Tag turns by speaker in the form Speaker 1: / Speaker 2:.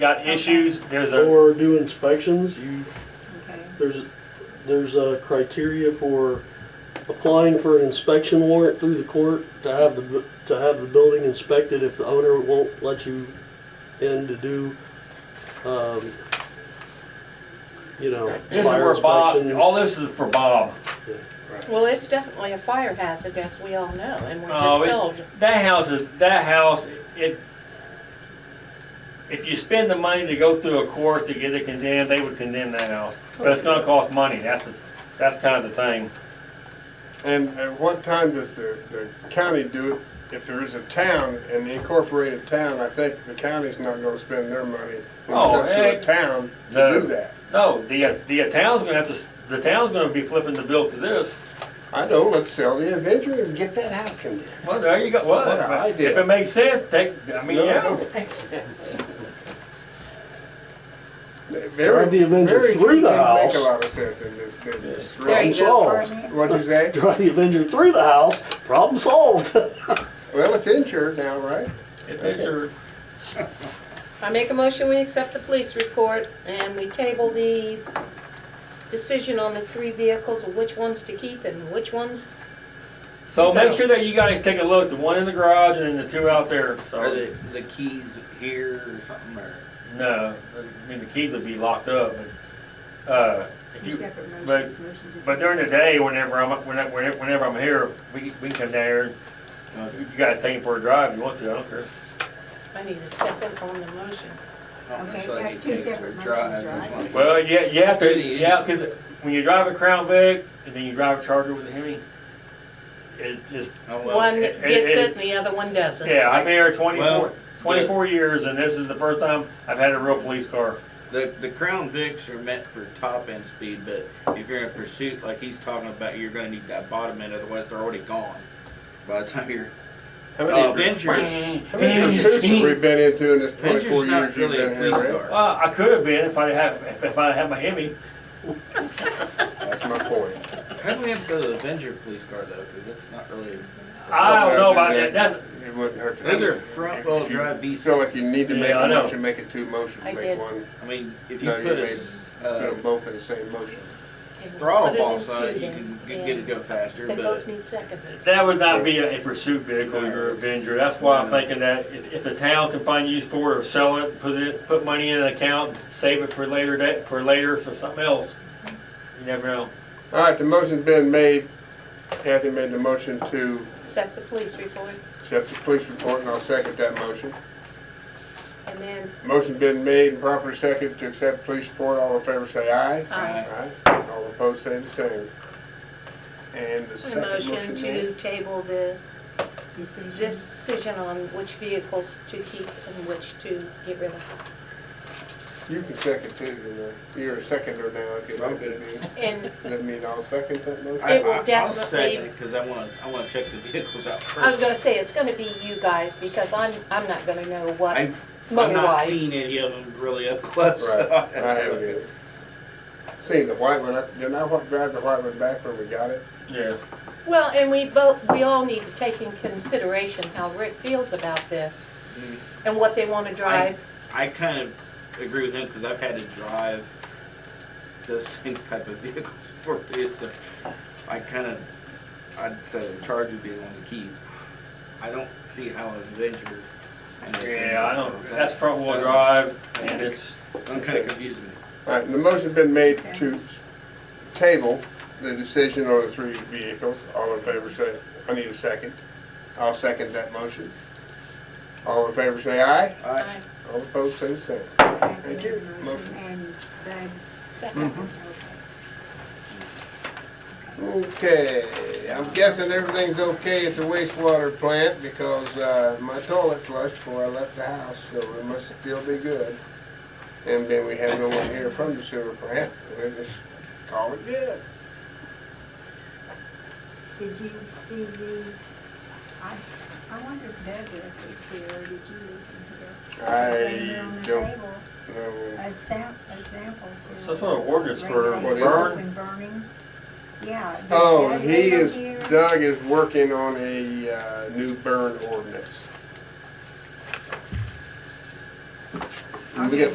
Speaker 1: got issues, there's a,
Speaker 2: or do inspections, you,
Speaker 3: Okay.
Speaker 2: there's, there's a criteria for applying for an inspection warrant through the court to have the, bu- to have the building inspected if the owner won't let you in to do, um, you know,
Speaker 1: this is
Speaker 2: fire
Speaker 1: where Bob,
Speaker 2: inspections.
Speaker 1: all this is for Bob.
Speaker 3: Well, it's definitely a fire hazard, as we all know, and we're
Speaker 1: Oh, it-
Speaker 3: just told.
Speaker 1: That house is, that house, it, if you spend the money to go through a court to get it condemned, they would condemn that house. But it's gonna cost money, that's, the that's kind of the thing.
Speaker 4: And at what time does the, the county do it? If there is a town, an incorporated town, I think the county's not gonna spend their money.
Speaker 1: Oh,
Speaker 4: It's up to
Speaker 1: heck.
Speaker 4: a town
Speaker 1: No.
Speaker 4: to do that.
Speaker 1: No, the, uh, the town's gonna have to, s- the town's gonna be flipping the bill for this.
Speaker 4: I know, let's sell the adventure and get that house condemned.
Speaker 1: Well, there you go, well,
Speaker 4: What an
Speaker 1: if it-
Speaker 4: idea.
Speaker 1: if it makes sense, take, I mean,
Speaker 4: No, it
Speaker 1: yeah.
Speaker 4: don't make sense.
Speaker 2: Drive the Avenger
Speaker 4: very few
Speaker 2: through the
Speaker 4: things Make
Speaker 2: house.
Speaker 4: a lot of sense in this business.
Speaker 3: There
Speaker 4: really.
Speaker 3: you go,
Speaker 2: Problem solved.
Speaker 3: Carmen.
Speaker 4: What'd you say?
Speaker 2: Drive the Avenger through the house, problem solved.
Speaker 4: Well, it's insured now, right?
Speaker 1: If it's your,
Speaker 5: I make a motion, we accept the police report, and we table the decision on the three vehicles, of which ones to keep and which ones.
Speaker 1: so make sure that you guys take a look, the one in the garage and then the two out there,
Speaker 6: Are
Speaker 1: so.
Speaker 6: the, the keys here or something, or?
Speaker 1: No, I mean, the keys would be locked up, but, uh, if you, but, but during the day, whenever I'm, whenever, whenever I'm here, we, we can come down here, you guys take it for a drive if you want to, I don't care.
Speaker 5: I need a second on the motion.
Speaker 6: Oh, Okay,
Speaker 7: so that's two separate motions, right?
Speaker 1: Well, yeah, you have to,
Speaker 6: Really?
Speaker 1: yeah, cause when you drive a Crown Vic and then you drive a Charger with a Hemi, it's just,
Speaker 6: Oh,
Speaker 5: One
Speaker 1: it- it-
Speaker 5: gets
Speaker 1: it-
Speaker 5: it and the other one doesn't.
Speaker 1: yeah, I'm here
Speaker 6: Well,
Speaker 1: twenty-four, twenty-four years and this is the first time I've had a real police car.
Speaker 6: The, the Crown Vics are meant for top end speed, but if you're in a pursuit like he's talking about, you're gonna need that bottom end, otherwise they're already gone. By the time you're,
Speaker 4: How
Speaker 6: the
Speaker 4: many,
Speaker 6: Avengers,
Speaker 4: how many pursuits have we been into in this twenty-four
Speaker 6: Avenger's
Speaker 4: years
Speaker 6: not
Speaker 4: you've
Speaker 6: really a
Speaker 4: been here,
Speaker 6: police
Speaker 4: Rick?
Speaker 6: car.
Speaker 1: Well, I could have been if I had, if- if I had my Hemi,
Speaker 4: That's my point.
Speaker 6: How do we have to go to the Avenger police car though, cause that's not really,
Speaker 1: I don't know about that, that's,
Speaker 4: It wouldn't hurt to.
Speaker 6: those are
Speaker 4: If
Speaker 6: front
Speaker 4: you
Speaker 6: wheel drive V
Speaker 4: Feel like you need
Speaker 6: sixes.
Speaker 4: to
Speaker 1: Yeah,
Speaker 4: make
Speaker 1: I
Speaker 4: a
Speaker 1: know.
Speaker 4: motion, make it two motions,
Speaker 3: I
Speaker 4: make
Speaker 3: did.
Speaker 4: one,
Speaker 6: I mean, if you
Speaker 4: No, you
Speaker 6: put a,
Speaker 4: made-
Speaker 6: s-
Speaker 4: put
Speaker 6: uh,
Speaker 4: them both in the same motion.
Speaker 5: Okay, we'll put
Speaker 6: throttle
Speaker 5: it
Speaker 6: boss
Speaker 5: in
Speaker 6: on
Speaker 5: two
Speaker 6: it, you
Speaker 5: then,
Speaker 6: can,
Speaker 5: and
Speaker 6: can get it go faster,
Speaker 5: They both
Speaker 6: but
Speaker 5: need seconded.
Speaker 1: That would not be a a pursuit vehicle, your Avenger, that's why I'm thinking that if, if the town can find use for it or sell it, put it, put money in an account, save it for later, that, for later, for something else. You never know.
Speaker 4: All right, the motion's been made. Kathy made the motion to
Speaker 5: Set the police report,
Speaker 4: accept the police report, and I'll second that motion.
Speaker 5: and then,
Speaker 4: Motion been made and properly seconded to accept the police report. All in favor say aye.
Speaker 5: aye.
Speaker 4: Aye. All opposed say the same. And the
Speaker 5: A
Speaker 4: second
Speaker 5: motion
Speaker 4: motion
Speaker 5: to
Speaker 4: made.
Speaker 5: table the
Speaker 7: Decision.
Speaker 5: decision on which vehicles to keep and which to get rid of.
Speaker 4: You can second too, you know. you're a seconder now if you'd like to be.
Speaker 5: And
Speaker 4: That mean I'll second that
Speaker 6: I,
Speaker 4: motion?
Speaker 5: It will
Speaker 6: I, I'll
Speaker 5: definitely-
Speaker 6: second it, cause I wanna, I wanna check the vehicles out first.
Speaker 5: I was gonna say, it's gonna be you guys, because I'm, I'm not gonna know what
Speaker 6: I've, I've not seen
Speaker 5: motor-wise.
Speaker 6: any of them really up close.
Speaker 4: Right,
Speaker 6: so
Speaker 4: I haven't either. Seen uh, the white one, I- didn't I wa- drive the white one back when we got it?
Speaker 1: Yes.
Speaker 5: Well, and we both, we all need to take in consideration how Rick feels about this and what they wanna drive.
Speaker 6: I kind of agree with him because I've had to drive those same type of vehicles before too, so I kind of, I'd say the Charger would be the one to keep. I don't see how an Avenger. and an
Speaker 1: Yeah, I don't,
Speaker 6: Avenger-
Speaker 1: that's front wheel drive and it's,
Speaker 6: I'm kind of confused. me.
Speaker 4: All right, and the motion's been made to table the decision on the three vehicles. All in favor say, I need a second. I'll second that motion. All in favor say aye.
Speaker 6: All right,
Speaker 4: All opposed say the same.
Speaker 7: Thank
Speaker 4: you. Motion. Mm-hmm.
Speaker 7: Motion and Doug,
Speaker 5: Second.
Speaker 7: okay.
Speaker 4: Okay, I'm guessing everything's okay at the wastewater plant because uh, my toilet flushed before I left the house, so it must still be good. And then we have no one here from the sewer plant, we just call it good.
Speaker 7: Did you see these? I, I wonder if Doug left these here, or did you leave
Speaker 4: I
Speaker 7: them here? They were on the
Speaker 4: don't
Speaker 7: table
Speaker 4: know.
Speaker 7: as sam- examples here.
Speaker 1: So that's one of the ordinance for
Speaker 7: Radioactive
Speaker 4: burn?
Speaker 7: and Burning, yeah. did
Speaker 4: Oh,
Speaker 7: Doug
Speaker 4: he
Speaker 7: leave them
Speaker 4: is,
Speaker 7: here?
Speaker 4: Doug is working on a uh, new burn ordinance. We got